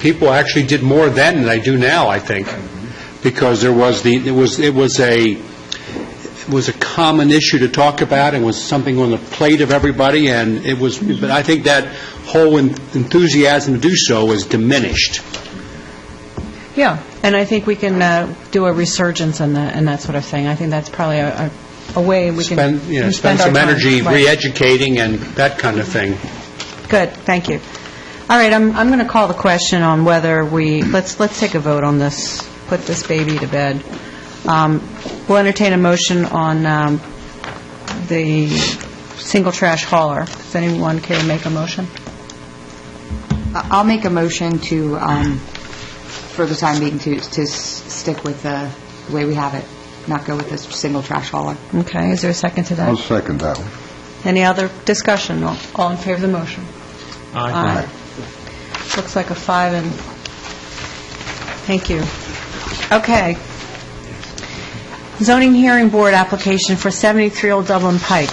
People actually did more then than I do now, I think, because there was the, it was, it was a, it was a common issue to talk about, and was something on the plate of everybody, and it was, but I think that whole en- enthusiasm to do so is diminished. Yeah, and I think we can uh, do a resurgence and that, and that sort of thing. I think that's probably a, a a way we can Spend, you know, can spend our some time. energy Right. re-educating and that kind of thing. Good, thank you. All right, I'm, I'm going to call the question on whether we, let's, let's take a vote on this, put this baby to bed. Um, We'll entertain a motion on um, the single trash hauler. Does anyone care to make a motion? I'll make a motion to, um, for the time being, to, to s- stick with the way we have it, not go with this single trash hauler. Okay, is there a second to I'll that? second that one. Any other discussion? All all in favor of the motion? Aye. Looks like a five and, thank you. Okay. Zoning Hearing Board application for 73 Old Dublin Pike.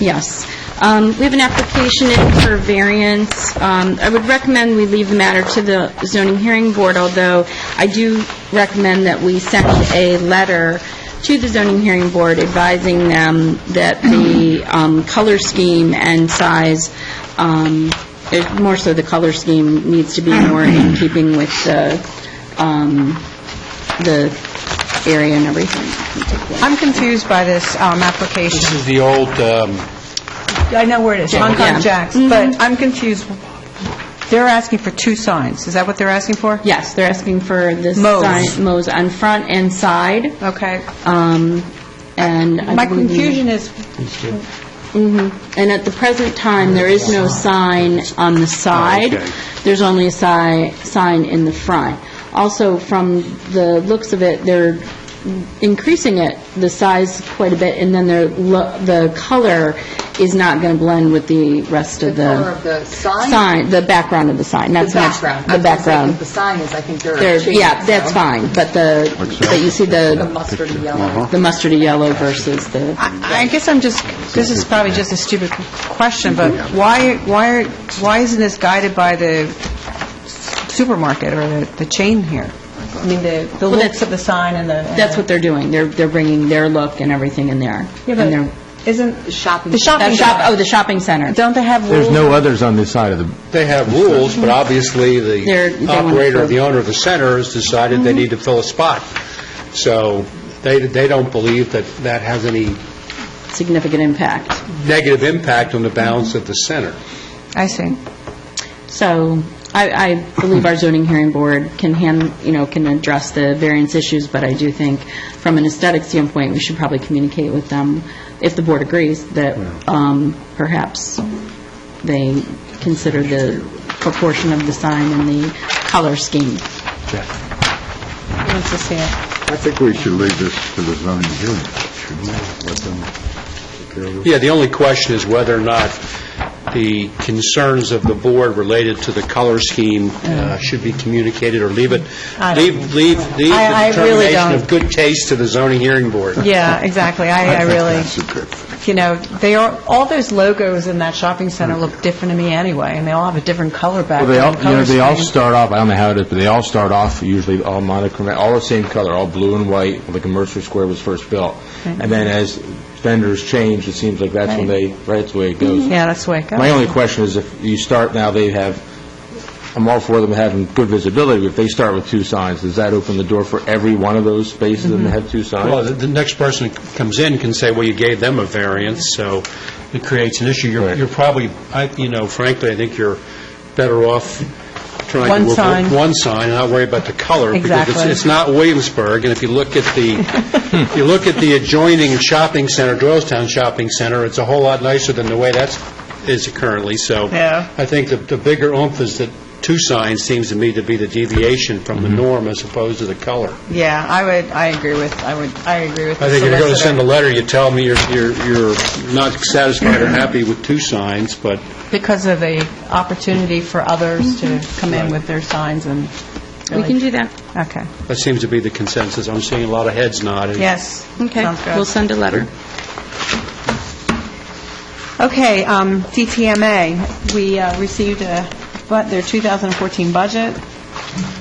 Yes. Um, We have an application in for variance. Um, I would recommend we leave the matter to the zoning hearing board, although I do recommend that we send a letter to the zoning hearing board advising them that the um, color scheme and size, um, it- more so the color scheme, needs to be more in keeping with the um, the area and everything. I'm confused by this um, This application. is the old, um, Mm-hmm. I know where it is, Mm-hmm. Concom Yeah. Jacks, but I'm confused. They're asking for two signs. Is that what they're asking for? Yes, they're asking for the Mows. sign, mows on front and side, Uh, Okay. um, and I My believe- confusion is, Mhm. And at the present time, there is no sign on the side. okay. There's only a si, sign in the front. Also, from the looks of it, they're increasing it, the size quite a bit, and then their, lo- the color is not going to blend with the rest of the... color of the sign? Sign, the background of the sign, not so much... The background. The sign is, I think they're There- changing Yeah, it, that's so. fine, but the, but you see The the, mustard uh-huh. yellow. the mustardy yellow versus the, I I guess I'm just, this is probably just a stupid question, but why, why, are- why isn't this guided by the supermarket or the the chain here? I mean, the the looks that's- of the sign and the... and that's the- what they're doing. They're, they're bringing their look and everything in there. Yeah, And they're- but isn't... Shopping- The that shopping shop, oh, center. the shopping center. Don't they have rules? There's no others on this side of the, they have rules, but obviously They're- they the want operator, to- the owner of the center has decided Mm-hmm. they need to fill a spot. So they, they don't believe that that has any Significant impact. negative impact on the balance of the center. I see. So I, I believe our zoning hearing board can hand, you know, can address the variance issues, but I do think from an aesthetic standpoint, we should probably communicate with them, if the board agrees, that um, perhaps they consider the proportion of the sign and the color scheme. Who wants to see it? I think we should leave this to the zoning hearing, shouldn't we? Let them take care of it. Yeah, the only question is whether or not the concerns of the board related to the color scheme uh, should be communicated, or leave it, Mm. I don't- leave, leave leave I- I the really determination don't. of good taste to the zoning hearing board. Yeah, exactly. I I really, That's a good thing. you know, they are, all those logos in that shopping center look different to me anyway, and they all have a different color well, background. they all, you know, color they all scheme. start off, I don't know how it is, but they all start off usually all monochrome, all the same color, all blue and white, like a Mercer Square was first built. And then as vendors change, it seems like that's when they, right, that's the way it goes. Yeah, that's the way it goes. My only question is if you start now, they have, I'm all for them having good visibility, but if they start with two signs, does that open the door for every one of those spaces Mm-hmm. and have two signs? Well, the- the next person that comes in can say, well, you gave them a variance, so it creates an issue. You're Right. you're probably, I- you know, frankly, I think you're better off trying One to work sign. with one sign and not worry about the color. Because Exactly. it's- it's not Williamsburg, and if you look at the, if you look at the adjoining shopping center, Doylestown Shopping Center, it's a whole lot nicer than the way that's, is currently, so. Yeah. I think the- the bigger oomph is that two signs seems to me to be the deviation from the norm as opposed to the color. Yeah, I would, I agree with, I would, I agree with I the think if you're going to solicitor. send a letter, you tell me you're, you're you're not satisfied or happy with two signs, but because of the opportunity for others to come in with their signs and Mm-hmm. We can do that. Okay. that seems to be the consensus. I'm seeing a lot of heads nodding. Yes. Okay, Sounds we'll good. send a letter. Okay, um, DTMA, we uh, received a, but their 2014 budget.